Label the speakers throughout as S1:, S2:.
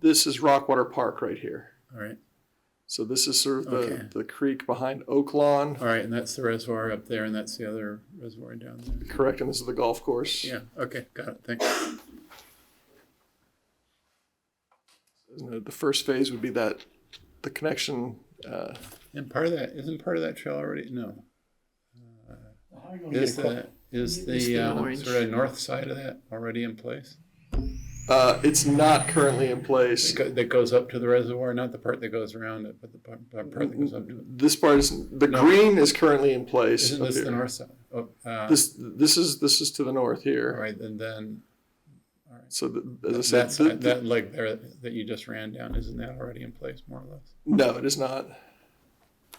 S1: this is Rockwater Park right here.
S2: All right,
S1: So this is sort of the,
S2: Okay.
S1: the creek behind Oak Lawn,
S2: all right, and that's the reservoir up there, and that's the other reservoir down there.
S1: correct? And this is the golf course.
S2: Yeah, okay, got it, thanks.
S1: And the- The first phase would be that the connection. Uh,
S2: And part of that, isn't part of that trail already, no? Uh,
S3: How are you gonna
S2: Is
S3: get across?
S2: the, is
S4: It's the
S2: the um,
S4: orange.
S2: sort of north side of that already in place?
S1: uh, it's not currently in place.
S2: That go- That goes up to the reservoir, not the part that goes around it, but the part the part that goes up to it.
S1: This part is the
S2: No.
S1: green is currently in place.
S2: Isn't
S1: up
S2: this the
S1: here.
S2: north side? Oh, uh,
S1: This this is this is to the north here.
S2: All right, and then
S1: So the, as I
S2: that
S1: said, th-
S2: side, that leg there that you just ran down, isn't that already in place, more or less?
S1: no, it is not.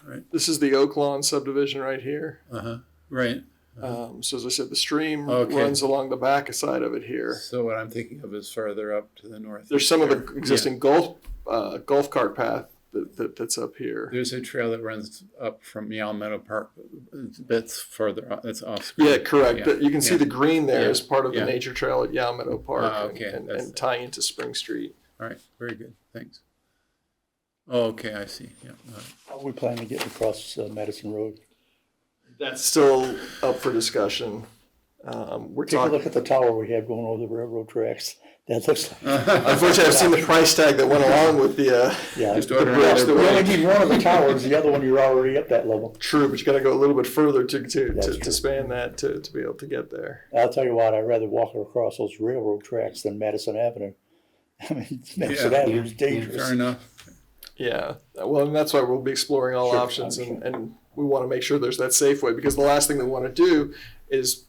S2: Right.
S1: This is the Oak Lawn subdivision right here.
S2: Uh-huh, right.
S1: Um, so as I said, the stream
S2: Uh-huh. Okay.
S1: runs along the back side of it here.
S2: So what I'm thinking of is further up to the north.
S1: There's some of the
S2: There-
S1: existing golf uh, golf cart path that, that, that's up
S2: yeah.
S1: here.
S2: There's a trail that runs up from Meow Meadow Park, that's further, o- that's off.
S1: Yeah, correct.
S2: Yeah.
S1: But You can see
S2: Yeah.
S1: the green there
S2: Yeah.
S1: as part of
S2: Yeah.
S1: the nature trail at Yamato Park
S2: Ah,
S1: and-
S2: okay.
S1: and,
S2: That's-
S1: and tying into Spring Street.
S2: All right, very good, thanks. Oh, okay, I see, yeah. all right.
S3: How are we planning to get across uh, Madison Road?
S1: That's still up for discussion. Um, we're
S3: Take a
S1: talking.
S3: look at the tower we have going over the railroad tracks. That looks like,
S1: Unfortunately, I've seen the price tag that went along with the. Uh,
S3: yeah.
S2: Just
S3: You
S2: order
S1: bridge
S2: another
S1: that
S3: only
S1: went-
S2: bridge.
S3: need one of the towers, the other one you're already at that level.
S1: True, but you got to go a little bit further to to,
S3: That's
S1: to, to
S3: true.
S1: span that to, to be able to get there.
S3: I'll tell you what, I'd rather walk across those railroad tracks than Madison Avenue. I mean, Madison
S2: Yeah.
S3: Avenue is
S2: Fair
S3: dangerous.
S2: enough,
S1: Yeah, well, and that's why we'll be exploring all
S3: Sure,
S1: options, and,
S3: understand.
S1: and we want to make sure there's that safe way because the last thing we want to do is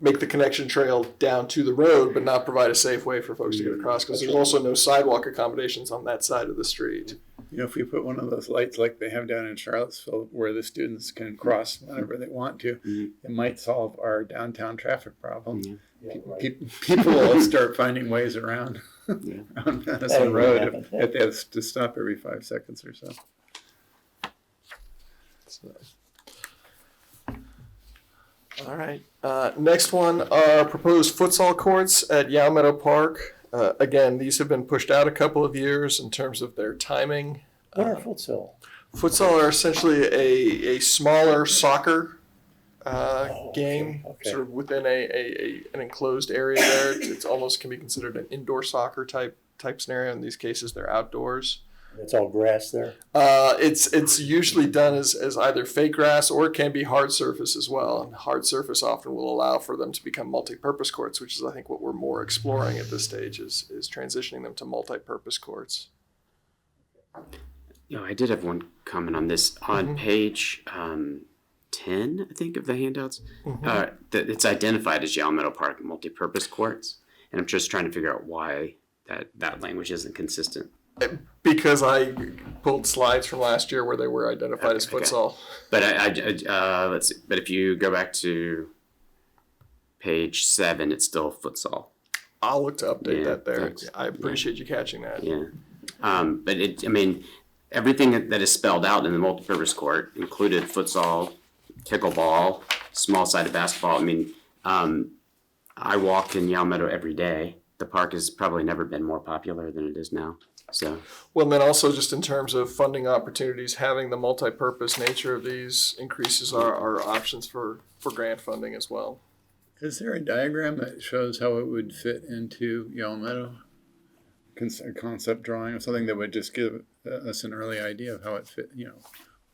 S1: make the connection trail down to the road, but not provide a safe way for folks to get across because there's also no sidewalk accommodations on that side of the street.
S2: you know, if we put one of those lights like they have down in Charlottesville, where the students can cross whenever they want to,
S1: Mm-hmm.
S2: it might solve our downtown traffic problem.
S3: Yeah, right.
S2: Pe- People will start finding ways around
S4: Yeah.
S2: on
S3: That'll
S2: Madison Road
S3: happen.
S2: if, if they have to stop every five seconds or so.
S1: So. All right. Uh, next one are proposed futsal courts at Yow Meadow Park. Uh, again, these have been pushed out a couple of years in terms of their timing.
S3: What are futsal?
S1: Futsal are essentially a, a smaller soccer uh,
S3: Oh, okay,
S1: game,
S3: okay.
S1: sort of within a, a, a an enclosed area. There, it's, it's almost can be considered an indoor soccer type type scenario. In these cases, they're outdoors.
S3: It's all grass there.
S1: Uh, it's it's usually done as, as either fake grass or it can be hard surface as well. And hard surface often will allow for them to become multi-purpose courts, which is I think what we're more exploring at this stage is is transitioning them to multi-purpose courts.
S4: No, I did have one comment on this on page um, ten, I think, of the handouts.
S1: Mm-hmm.
S4: Uh, that it's identified as Yale Meadow Park multipurpose courts, and I'm just trying to figure out why that that language isn't consistent.
S1: Because I pulled slides from last year where they were identified as
S4: Okay, okay.
S1: futsal.
S4: But I, I- I- uh, let's see. But if you go back to page seven, it's still futsal.
S1: I'll look to update
S4: Yeah,
S1: that there.
S4: thanks.
S1: I appreciate you catching that.
S4: Yeah. Um, but it, I mean, everything that- that is spelled out in the multipurpose court included futsal, pickleball, small sided basketball. I mean, um, I walk in Yale Meadow every day. The park has probably never been more popular than it is now. So,
S1: Well, and then also just in terms of funding opportunities, having the multi-purpose nature of these increases our, our options for, for grant funding as well.
S2: Is there a diagram that shows how it would fit into Yellow Meadow? Cons- a Concept drawing or something that would just give uh, us an early idea of how it fit, you know,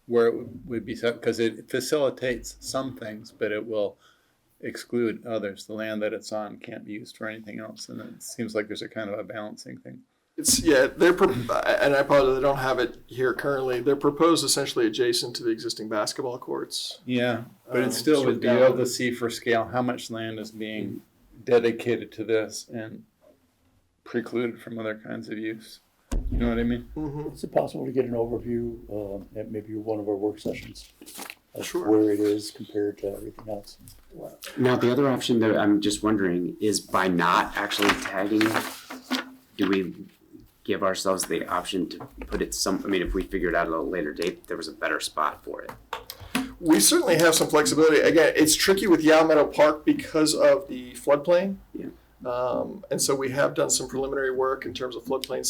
S2: where it would- would be set, because it facilitates some things, but it will exclude others. The land that it's on can't be used for anything else, and it seems like there's a kind of a balancing thing.
S1: It's, yeah, they're, pro- and I apologize, I don't have it here currently. They're proposed essentially adjacent to the existing basketball courts.
S2: Yeah, but
S1: Um,
S2: it still
S1: sort
S2: would
S1: of
S2: be able
S1: down-
S2: to see for scale how much land is being dedicated to this and precluded from other kinds of use. You know what I mean?
S1: Mm-hmm.
S3: Is it possible to get an overview, um, at maybe one of our work sessions? of
S1: Sure.
S3: Where it is compared to everything else?
S4: now the other option that I'm just wondering is by not actually tagging, do we give ourselves the option to put it some, I mean, if we figured out at a later date, there was a better spot for it?
S1: We certainly have some flexibility. Again, it's tricky with Yow Meadow Park because of the floodplain.
S4: Yeah.
S1: Um, and so we have done some preliminary work in terms of floodplain